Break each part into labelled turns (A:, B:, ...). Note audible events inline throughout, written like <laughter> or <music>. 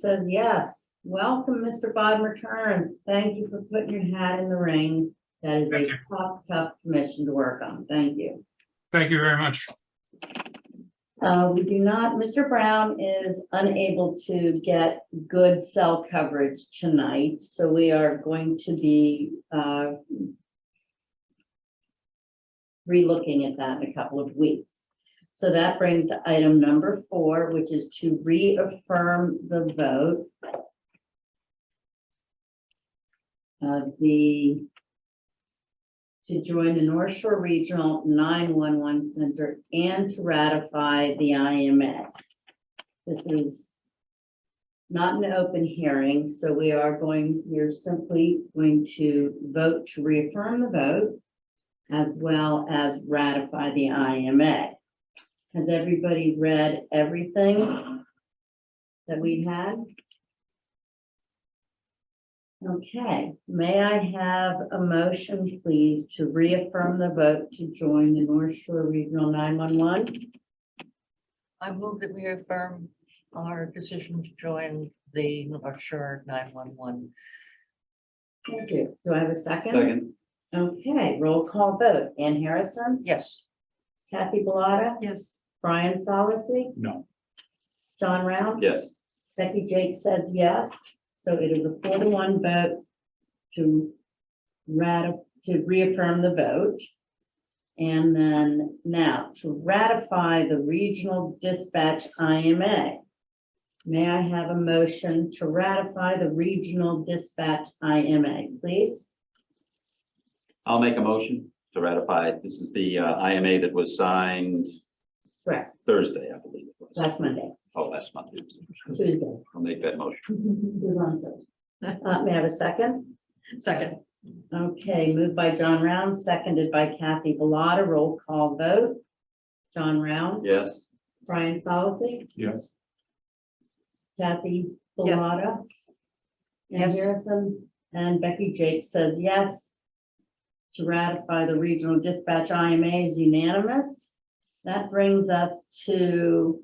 A: says yes. Welcome, Mr. Bob Return. Thank you for putting your hat in the ring. That is a
B: Thank you.
A: tough, tough commission to work on. Thank you.
B: Thank you very much.
A: Uh, we do not, Mr. Brown is unable to get good cell coverage tonight, so we are going to be, uh, relooking at that in a couple of weeks. So that brings to item number four, which is to reaffirm the vote. of the to join the North Shore Regional 911 Center and to ratify the IMA. This is not an open hearing, so we are going, we're simply going to vote to reaffirm the vote as well as ratify the IMA. Has everybody read everything that we had? Okay, may I have a motion, please, to reaffirm the vote to join the North Shore Regional 911?
C: I move that we affirm our decision to join the North Shore 911.
A: Thank you. Do I have a second?
D: Second,
A: Okay, roll call vote. Ann Harrison,
C: Yes.
A: Kathy Bellata,
C: Yes.
A: Brian Solacey,
B: No.
A: John Round.
D: yes,
A: Becky Jake says yes, so it is a four to one vote to ratify, to reaffirm the vote. And then now to ratify the regional dispatch IMA. May I have a motion to ratify the regional dispatch IMA, please?
D: I'll make a motion to ratify. This is the uh, IMA that was signed
A: Correct,
D: Thursday, I believe. it was.
A: last Monday,
D: Oh, last month. it was.
A: Tuesday.
D: I'll make that motion.
A: It was on Thursday. Uh, may I have a second?
C: Second.
A: Okay, moved by John Round, seconded by Kathy Bellata, roll call vote. John Round,
D: Yes,
A: Brian Solacey,
B: Yes.
A: Kathy
C: Yes.
A: Bellata. Ann
C: Yes.
A: Harrison, and Becky Jake says yes. To ratify the regional dispatch IMA is unanimous. That brings us to,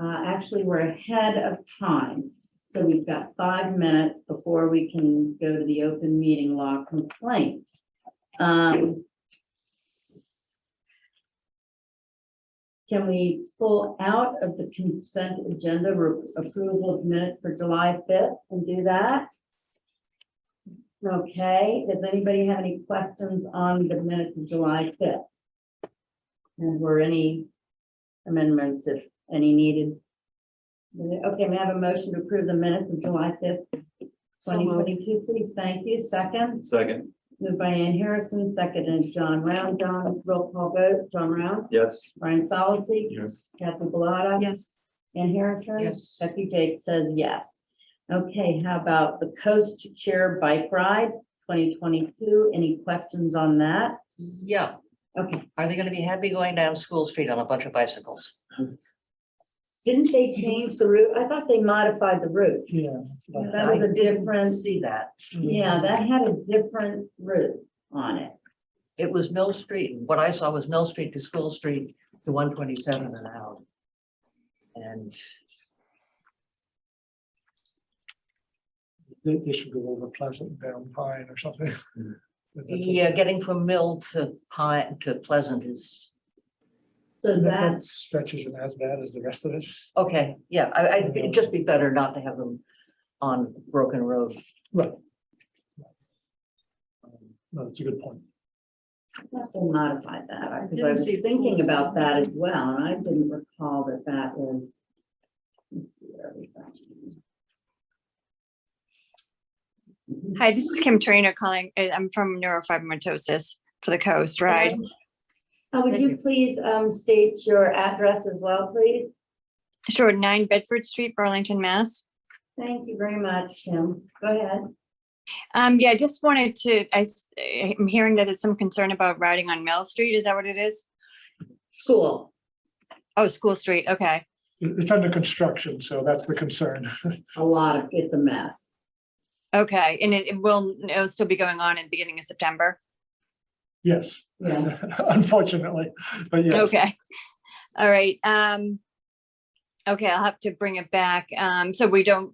A: uh, actually, we're ahead of time. So we've got five minutes before we can go to the open meeting law complaint. Um, Can we pull out of the consent agenda re- approval of minutes for July fifth and do that? Okay, does anybody have any questions on the minutes of July fifth? And were any amendments, if any needed? Okay, may I have a motion to approve the minutes of July fifth,
C: So
A: twenty
C: moved.
A: twenty-two, please? Thank you. Second,
D: second,
A: moved by Ann Harrison, seconded John Round. John, roll call vote. John Round,
D: yes,
A: Brian Solacey,
B: Yes.
A: Kathy Bellata.
C: Yes.
A: Ann Harrison?
C: Yes.
A: Becky Jake says yes. Okay, how about the Coast to Cure Bike Ride twenty twenty-two? Any questions on that?
C: Yeah.
A: Okay,
C: Are they going to be happy going down School Street on a bunch of bicycles?
A: didn't they change the route? I thought they modified the route.
E: Yeah.
A: That was a different,
C: See that?
A: yeah, that had a different route on it.
C: It was Mill Street. What I saw was Mill Street to School Street to 127 and out. And
E: They, they should go over Pleasant down Pine or something. <laughs> But that's a-
C: yeah, getting from Mill to Pine to Pleasant is,
A: So
E: That
A: that,
E: that stretch isn't as bad as the rest of it.
C: okay, yeah, I, I, it'd just be better not to have them on Broken Road.
E: Right. Um, No, that's a good point.
A: they modified that, I- because I
C: Didn't
A: was
C: see it.
A: thinking about that as well, and I didn't recall that that was. let me see where we got to.
F: Hi, this is Kim Trainer calling. I- I'm from neurofibromatosis for the Coast Ride.
A: Uh, Would
C: Thank
A: you
C: you.
A: please um, state your address as well, please?
F: Sure, 9 Bedford Street, Burlington, Mass.
A: Thank you very much, Kim. Go ahead.
F: Um, yeah, I just wanted to, I, am hearing that there's some concern about riding on Mill Street. Is that what it is?
A: School.
F: Oh, School Street. Okay.
E: It- It's under construction, so that's the concern. <laughs>
A: A lot of, it's a mess.
F: Okay. And it, it will, it'll still be going on in the beginning of September.
E: Yes,
A: Yeah.
E: <laughs> unfortunately, but yes.
F: Okay. All right. Um, okay. I'll have to bring it back. Um, so we don't,